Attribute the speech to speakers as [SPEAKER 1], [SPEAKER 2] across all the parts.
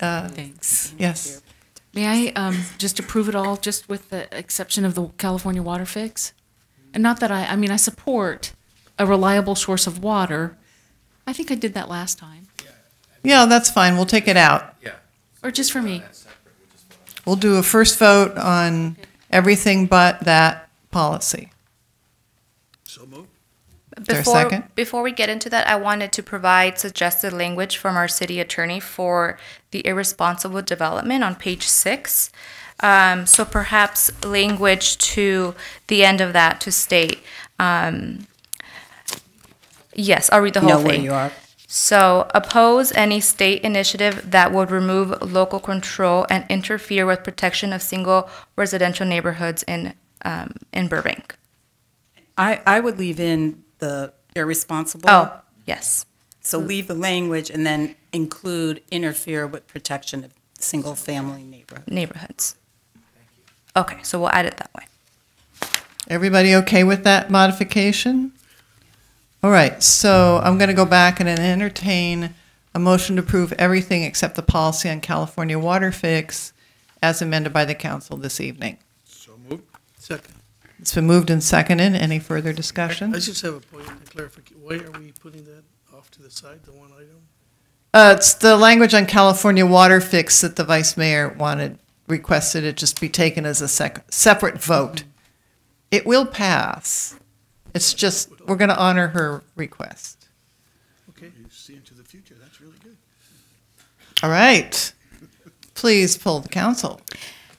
[SPEAKER 1] uh,
[SPEAKER 2] Thanks.
[SPEAKER 1] yes.
[SPEAKER 2] May I um, just approve it all, just with the exception of the California water fix? And not that I, I mean, I support a reliable source of water. I think I did that last time,
[SPEAKER 1] Yeah, that's fine. We'll take it out.
[SPEAKER 2] or just for me.
[SPEAKER 1] We'll do a first vote on everything but that policy.
[SPEAKER 3] So moved.
[SPEAKER 1] there a
[SPEAKER 4] Before,
[SPEAKER 1] second?
[SPEAKER 4] Before we get into that, I wanted to provide suggested language from our city attorney for the irresponsible development on page six. Um, so perhaps language to the end of that to state, um, yes, I'll read the whole
[SPEAKER 5] know where
[SPEAKER 4] thing.
[SPEAKER 5] you are.
[SPEAKER 4] So oppose any state initiative that would remove local control and interfere with protection of single residential neighborhoods in, um, in Burbank.
[SPEAKER 5] I, I would leave in the irresponsible.
[SPEAKER 4] Oh, yes.
[SPEAKER 5] So leave the language and then include interfere with protection of single-family neighborhood.
[SPEAKER 4] neighborhoods. Okay, so we'll add it that way.
[SPEAKER 1] Everybody okay with that modification? All right, so I'm going to go back and entertain a motion to approve everything except the policy on California water fix as amended by the council this evening.
[SPEAKER 3] So moved. Second.
[SPEAKER 1] It's been moved and seconded. Any further
[SPEAKER 3] I
[SPEAKER 1] discussion?
[SPEAKER 3] I just have a point of clarification. Why are we putting that off to the side, the one item?
[SPEAKER 1] Uh, it's the language on California water fix that the vice mayor wanted, requested it just be taken as a sec- separate vote. It will pass. It's just, we're going to honor her request.
[SPEAKER 3] Okay. You see into the future. That's really good.
[SPEAKER 1] All right. Please pull the council.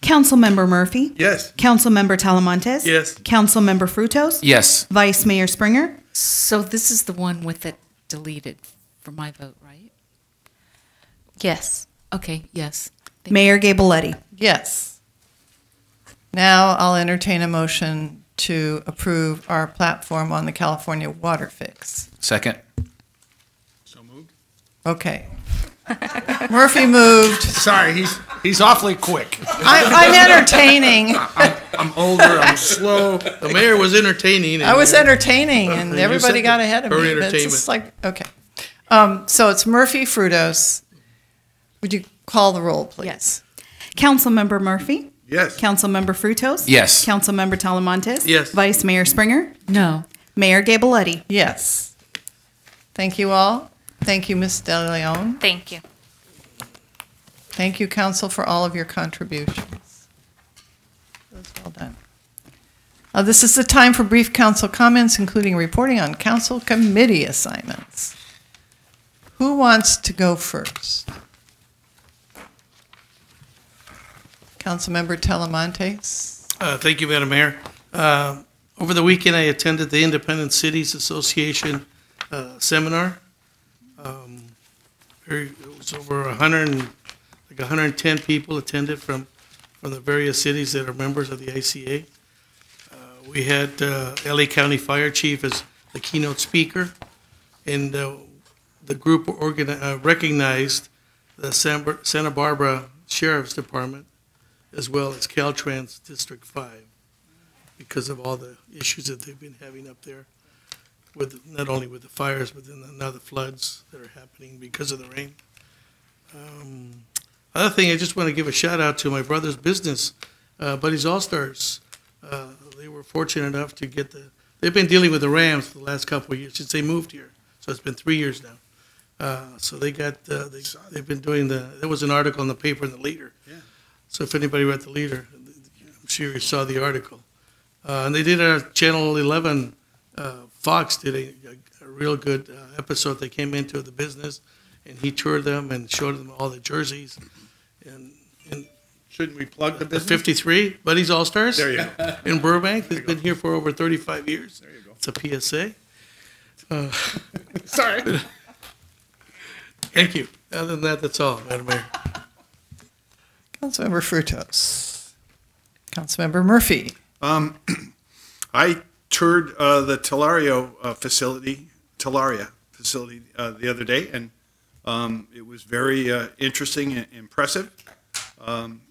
[SPEAKER 6] Councilmember Murphy?
[SPEAKER 3] Yes.
[SPEAKER 6] Councilmember Talamontes?
[SPEAKER 3] Yes.
[SPEAKER 6] Councilmember Frutos?
[SPEAKER 7] Yes.
[SPEAKER 6] Vice Mayor Springer?
[SPEAKER 2] So this is the one with it deleted for my vote, right?
[SPEAKER 4] Yes.
[SPEAKER 2] Okay, yes. Thank you.
[SPEAKER 6] Mayor Gabaletti?
[SPEAKER 1] Yes. Now I'll entertain a motion to approve our platform on the California water fix.
[SPEAKER 7] Second.
[SPEAKER 3] So moved.
[SPEAKER 1] Okay. Murphy moved.
[SPEAKER 8] Sorry, he's he's awfully quick.
[SPEAKER 1] I, I'm entertaining.
[SPEAKER 8] I'm older. I'm slow.
[SPEAKER 3] The mayor was entertaining.
[SPEAKER 1] I was
[SPEAKER 3] entertaining.
[SPEAKER 1] entertaining, and
[SPEAKER 3] You
[SPEAKER 1] everybody
[SPEAKER 3] said
[SPEAKER 1] got
[SPEAKER 3] that.
[SPEAKER 1] ahead of
[SPEAKER 3] Her
[SPEAKER 1] me. but It's
[SPEAKER 3] entertainment.
[SPEAKER 1] just like okay. Um, so it's Murphy Frutos. Would you call the roll, please?
[SPEAKER 6] Yes. Councilmember Murphy?
[SPEAKER 3] Yes.
[SPEAKER 6] Councilmember Frutos?
[SPEAKER 7] Yes.
[SPEAKER 6] Councilmember Talamontes?
[SPEAKER 3] Yes.
[SPEAKER 6] Vice Mayor Springer?
[SPEAKER 2] No,
[SPEAKER 6] Mayor Gabaletti?
[SPEAKER 1] Yes. Thank you all. Thank you, Ms. De Leon.
[SPEAKER 4] Thank you.
[SPEAKER 1] Thank you, council, for all of your contributions. That's well done. Uh, this is the time for brief council comments, including reporting on council committee assignments. Who wants to go first? Councilmember Talamontes?
[SPEAKER 3] Uh, Thank you, Madam Mayor. Uh, Over the weekend, I attended the Independent Cities Association uh, seminar. Um, very- It was over 100, and- like 110 people attended from, from the various cities that are members of the ICA. Uh, We had uh, LA County Fire Chief as the keynote speaker, and uh, the group organi- uh, recognized the San Bar- Santa Barbara Sheriff's Department as well as Caltrans District Five, because of all the issues that they've been having up there with, not only with the fires, but then now the floods that are happening because of the rain. Um, Other thing, I just want to give a shout out to my brother's business, uh, Buddy's All Stars. Uh, They were fortunate enough to get the, they've been dealing with the Rams for the last couple of years since they moved here. So it's been three years now. Uh, So they got, uh, they- they've been doing the, there was an article in the paper in the Leader so if anybody read the leader, I'm sure you saw the article. Uh, and they did a Channel 11, uh, Fox did a, a, a real good uh, episode. They came into the business and he toured them and showed them all the jerseys. And, and
[SPEAKER 8] Shouldn't we plug the
[SPEAKER 3] the
[SPEAKER 8] business?
[SPEAKER 3] 53 Buddies All Stars
[SPEAKER 8] There you go.
[SPEAKER 3] in Burbank has been here for over 35 years.
[SPEAKER 8] There you go.
[SPEAKER 3] It's a Uh, PSA.
[SPEAKER 8] Sorry.
[SPEAKER 3] Thank you. Other than that, that's all, Madam Mayor.
[SPEAKER 1] Councilmember Frutos? Councilmember Murphy?
[SPEAKER 8] Um, I toured uh, the Telario uh, facility, Telaria facility uh, the other day, and um, it was very uh, interesting and impressive. Um,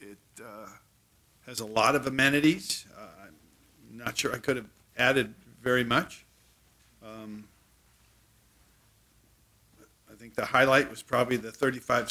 [SPEAKER 8] it uh, has a lot of amenities. Uh, I'm not sure I could have added very much. Um, I think the highlight was probably the 35